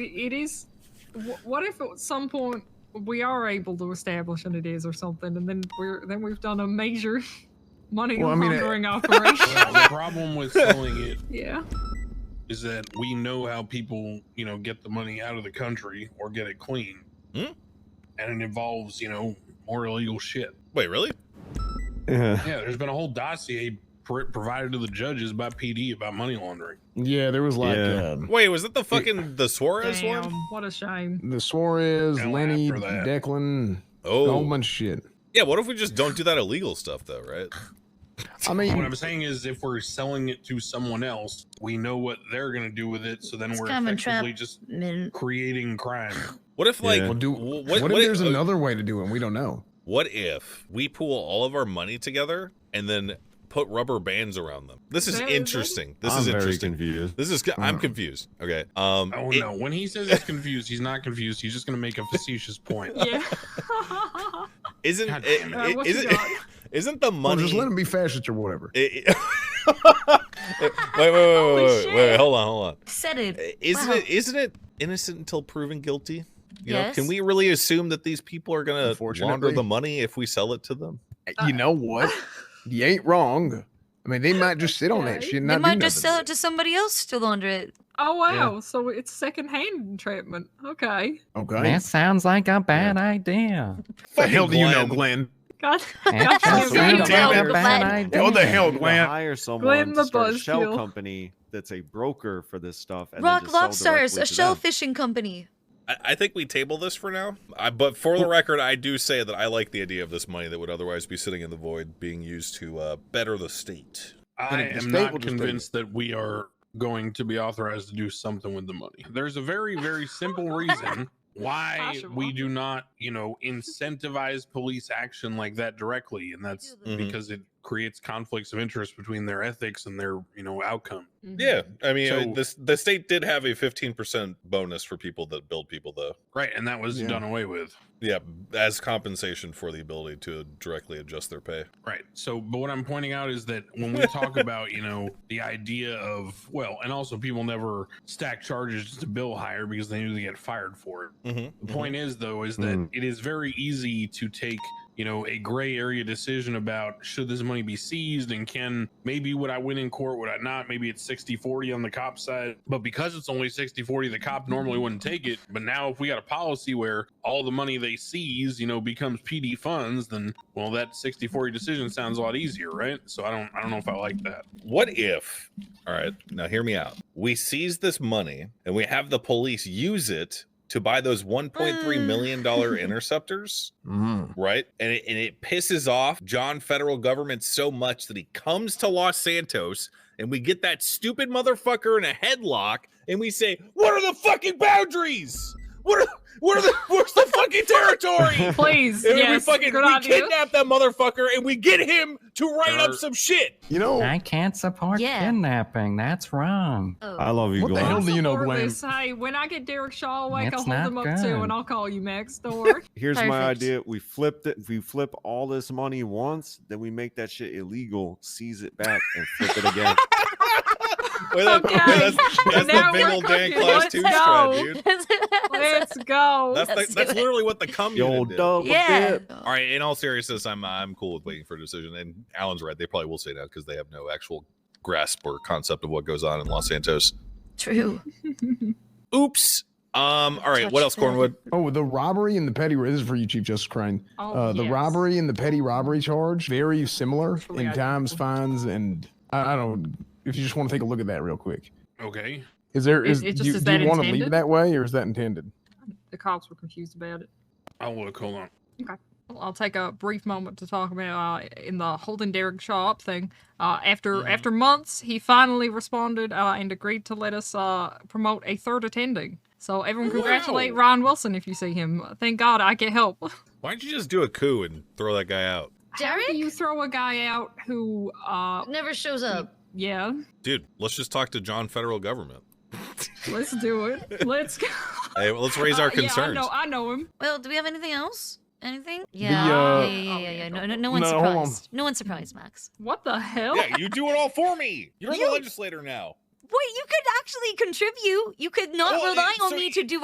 It, it is. wh- What if at some point we are able to establish an it is or something, and then we're then we've done a major money Well, I mean, it- laundering operation? Well, the problem with selling it yeah. is that we know how people, you know, get the money out of the country or get it clean. Hmm? And it involves, you know, more illegal shit. Wait, really? Yeah. Yeah, there's been a whole dossier pr- provided to the judges by PD about money laundering. Yeah, there was like Yeah. um, Wait, was that the fucking the Suarez Damn, one? what a shame. the Suarez, Now Lenny, after that. Declan, a whole Oh, bunch of shit. yeah. What if we just don't do that illegal stuff though, right? I What mean, I'm saying is, if we're selling it to someone else, we know what they're going to do with it. So then It's we're common trap. effectively just Min- creating crime. What if like Yeah. well, do, wh- what, what, if what there's uh, another way to do it? and We don't know. What if we pool all of our money together and then put rubber bands around them? This is That is- interesting. This I'm is very interesting. confused. This is Oh, I'm confused. Okay. Um Oh it- no! When he says he's confused, he's not confused. He's just going to make a facetious point. Yeah. isn't God it, damn it. Uh, it, what you isn't, got? isn't the Well, money Oh, just let them be fascist or whatever. it- it- Wait, wait, wait, wait, Holy wait, wait, wait, shit. hold on, hold on. Said it. Isn't Wow. it isn't it innocent until proven guilty? You know, Yes. can we really assume that these people are gonna launder Unfortunately. the money if we sell it to them? Uh, you know what? You ain't wrong. I mean, they might just sit on that Okay. shit and They not might do just nothing. sell it to somebody else to launder it. oh wow. So it's secondhand entrapment. Okay. Okay. That sounds like a bad idea. the hell do you know, Glenn. Glenn? God. That Damn sounds like a it, bad Glenn. idea. What the hell, You Glenn? Hire someone Glenn the to start a shell buzzkill. company that's a broker for this stuff. And then Rock just sell Lobsters, directly a to them. shell fishing company. I, I think we table this for now. I, but for the record, I do say that I like the idea of this money that would otherwise be sitting in the void being used to uh, better the state. I Then the am state not will just do it. convinced that we are going to be authorized to do something with the money. There's a very, very simple reason why we Possible. do not, you know, incentivize police action like that directly, and that's Oh. Mhm. because it creates conflicts of interest between their ethics and their, you know, outcome. Mm-hmm. Yeah, I mean, I- So- this the state did have a fifteen percent bonus for people that build people, though. Right, and that was Yeah. done away with. Yeah, as compensation for the ability to directly adjust their pay. Right. So, but what I'm pointing out is that when we talk about, you know, the idea of, well, and also people never stack charges to bill higher because they knew they get fired for it. Mm-hmm. The point is, though, is that Mm. it is very easy to take, you know, a gray area decision about should this money be seized and can maybe would I win in court, would I not? Maybe it's 60 40 on the cop side. But because it's only 60 40, the cop normally wouldn't take it. But now, if we got a policy where all the money they seize, you know, becomes PD funds, then, well, that 60 40 decision sounds a lot easier, right? So I don't, I don't know if I like that. What if? All right, now hear me out. We seize this money and we have the police use it to buy those one point three Mm. million dollar interceptors. Mm. right? And it, and it pisses off John federal government so much that he comes to Los Santos and we get that stupid motherfucker in a headlock and we say, "What are the fucking boundaries? What are what are the where's the fucking territory?" Please. And yes. we fucking good we idea. kidnap that motherfucker and we get him to write up Dirt. some shit. You know, I can't support Yeah. kidnapping. That's wrong. Oh. I love you, What the Glenn. hell do you know, Support Glenn? this. Hey, when I get Derek Shaw awake, I'll That's hold him up not too, good. and I'll call you Max. Don't worry. Here's my Perfect. idea. We flipped it. We flip all this money once, then we make that shit illegal, seize it back, and flip it again. Wait, that- wait, Okay. that's that's the Now big we're old Dan cooking. Claus Let's two go. strat, dude. Let's go. That's Let's the, do that's it. literally what the cum the unit old did. double yeah. dip. All right, in all seriousness, I'm I'm cool with waiting for a decision. And Alan's right; they probably will say that because they have no actual grasp or concept of what goes on in Los Santos. True. Oops. Um. All right. What Touch else, that. Cornwood? Oh, the robbery and the petty. This is for you, Chief Justice Crane. Oh, Uh, the yes. robbery and the petty robbery charge very similar Actually, in I- times, fines, and I, I don't. If you just want to take a look at that real quick, Okay. is there It- it is, do just- you, is do that you want to leave it intended? that way or is that intended? The cops were confused about it. I'll look. Hold on. I'll take a brief moment to talk about uh, in the holding Derek Shaw up thing. Uh, after Mm-hmm. after months, he finally responded uh, and agreed to let us uh, promote a third attending. So everyone congratulate Ryan Wilson if you see him. Thank God I get help. Why don't you just do a coup and throw that guy out, How do Derek you throw a guy out who, uh, never shows up. yeah, dude? Let's just talk to John federal government. let's do it. Let's go. Hey, well, let's raise our Uh, concerns. Yeah, I know, I know him. Well, do we have anything else? Anything? Yeah. uh, yeah, yeah, Oh, yeah, yeah, yeah. go No, for no, it. no No, one's hold on. surprised. No one's surprised, Max. What the hell? Yeah, you do it all for me. You're the legislator now. Wait, you could actually contribute. You could not Oh, rely it- on so me it- to do